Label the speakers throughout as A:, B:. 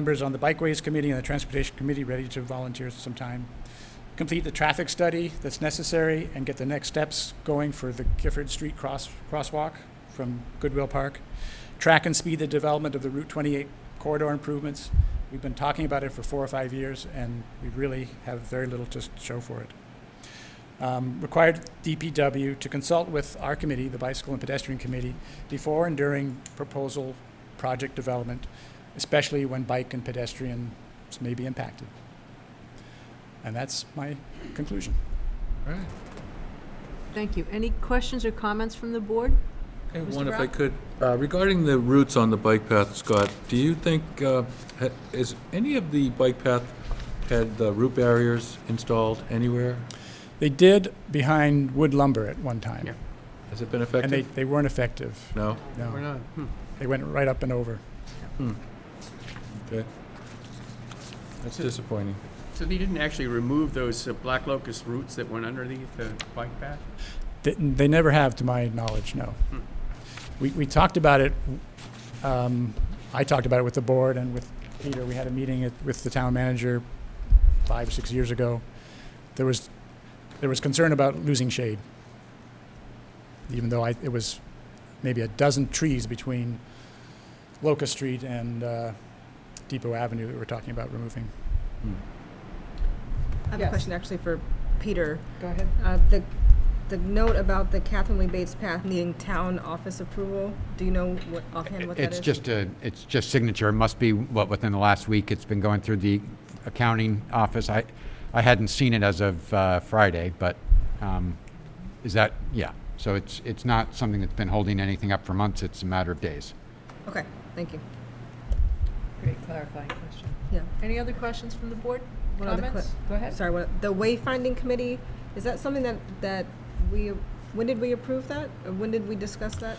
A: members on the Bikeways Committee and the Transportation Committee ready to volunteer sometime. Complete the traffic study that's necessary and get the next steps going for the Gifford Street cross, crosswalk from Goodwill Park. Track and speed the development of the Route 28 corridor improvements. We've been talking about it for four or five years, and we really have very little to s- show for it um, required DPW to consult with our committee, the Bicycle and Pedestrian Committee, before and during proposal project development, especially when bike and pedestrians may be impacted. And that's my conclusion.
B: All right.
C: Thank you. Any questions or comments from the board?
B: Okay,
C: Mr.
B: one if I
C: Brown?
B: could. Uh, Regarding the routes on the bike path, Scott, do you think, uh, ha- is any of the bike path had uh, root barriers installed anywhere?
A: They did behind wood lumber at one time,
D: Yeah.
B: Has it been
A: and they,
B: effective?
A: they weren't effective.
B: No?
A: No,
D: not? Hmm.
A: they went right up and over.
B: Okay. That's disappointing.
D: So they didn't actually remove those uh, black locust roots that went underneath the bike path?
A: They, they never have, to my knowledge, no.
D: Hmm.
A: We, we talked about it, um, I talked about it with the board and with Peter. We had a meeting at, with the town manager five or six years ago. There was, there was concern about losing shade. Even though I, it was maybe a dozen trees between Locust Street and, uh, Depot Avenue that we're talking about removing.
B: Hmm.
E: I have a
C: Yes.
E: question actually for Peter.
C: Go ahead.
E: Uh, The, the note about the Catherine Lee Bates path needing town office approval, do you know what, offhand what that
F: It's
E: is?
F: just a, it's just signature, it must be, what, within the last week, it's been going through the accounting office. I, I hadn't seen it as of uh, Friday, but um, is that, yeah. So it's, it's not something that's been holding anything up for months, it's a matter of days.
E: Okay, thank you.
C: Great clarifying question.
E: Yeah.
C: Any other questions from the board?
E: One other
C: Comments? Go ahead.
E: Sorry, what, the wayfinding committee, is that something that, that we, when did we approve that? Or when did we discuss that?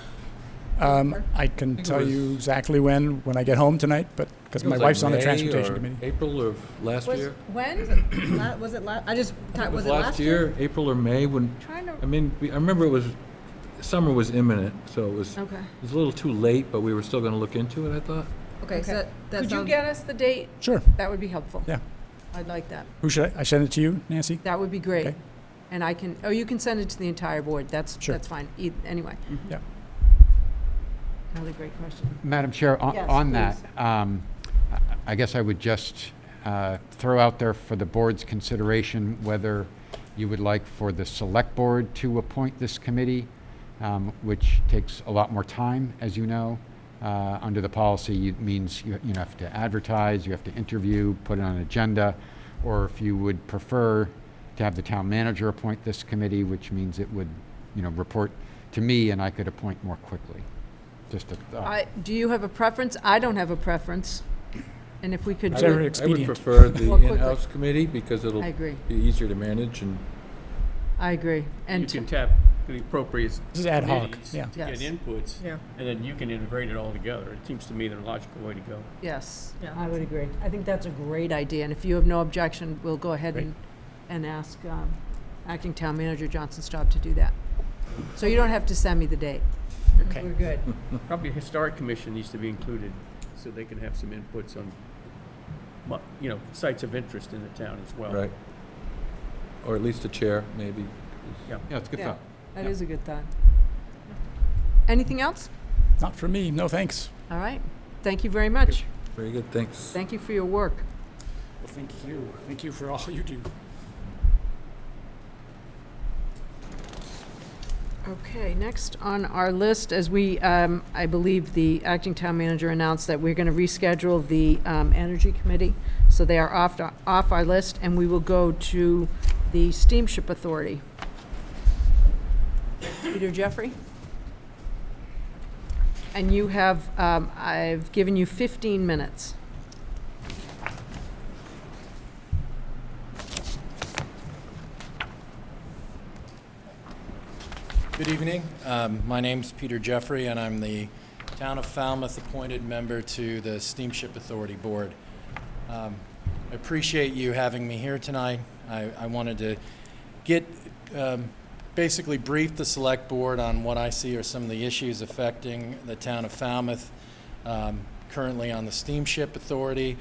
A: Um, I can
B: it
A: tell you
B: was-
A: exactly when, when I get home tonight, but, because my wife's on the transportation committee.
B: April of last
C: Was,
B: year?
C: when?
E: La- Was it la, I just,
B: It
E: was it last year?
B: April or May, when,
C: Trying
B: I
C: to,
B: mean, we- I remember it was, summer was imminent, so it was, it
E: Okay,
B: was a little too late, but we were still going to look into it, I thought.
E: okay, so
C: Okay.
E: that, that
C: could you
E: sounds,
C: get us the date?
A: Sure.
C: That would be helpful.
A: Yeah.
C: I'd like that.
A: Who should I, I send it to you, Nancy?
C: That would be great.
A: Okay.
C: And I can, oh, you can send it to the entire board. That's,
A: Sure. Mm-hmm.
C: that's fine. E- Anyway.
A: Yeah.
C: Another great question.
F: Madam Chair, on-
C: Yes,
F: on that, um, I- I guess I would just uh, throw out there for the board's consideration whether you would like for the select board to appoint this committee, um, which takes a lot more time, as you know. Uh, Under the policy, it means you you have to advertise, you have to interview, put it on an agenda, or if you would prefer to have the town manager appoint this committee, which means it would, you know, report to me and I could appoint more quickly. Just a
A: Oh.
F: thought.
C: I, do you have a preference? I don't have a preference. And if we could,
A: Whichever
C: do it-
A: expedient.
B: I would prefer the
C: More quickly.
B: in-house committee because it'll
C: I agree.
B: be easier to manage and
C: I agree.
D: You
C: And
D: can tap the appropriate
A: This is ad hoc,
D: committees
A: yeah.
D: to get
C: Yes.
D: inputs,
E: yeah,
D: and then you can integrate it all together. It seems to me the logical way to go.
C: Yes,
E: Yeah.
C: I would agree. I think that's a great idea, and if you have no objection, we'll go ahead
A: Great.
C: and, and ask um, Acting Town Manager Johnson Staub to do that. So you don't have to send me the date.
A: Okay.
C: We're good.
D: Probably a historic commission needs to be included so they can have some inputs on, mu- you know, sites of interest in the town as well.
B: Right. Or at least a chair, maybe.
F: Yeah, it's a good
C: Yeah.
F: thought.
C: That
F: Yeah.
C: is a good thought. Anything else?
A: Not for me, no thanks.
C: All right. Thank you very much.
B: Very good, thanks.
C: Thank you for your work.
A: Well, thank you. Thank you for all you do.
C: Okay, next on our list, as we, um, I believe the acting town manager announced that we're going to reschedule the um, Energy Committee, so they are off, off our list, and we will go to the Steamship Authority. Peter Jeffrey? And you have, um, I've given you 15 minutes.
G: Good evening. Um, My name's Peter Jeffrey, and I'm the Town of Falmouth appointed member to the Steamship Authority Board. Um, I appreciate you having me here tonight. I I wanted to get, um, basically brief the Select Board on what I see are some of the issues affecting the Town of Falmouth, um, currently on the Steamship Authority,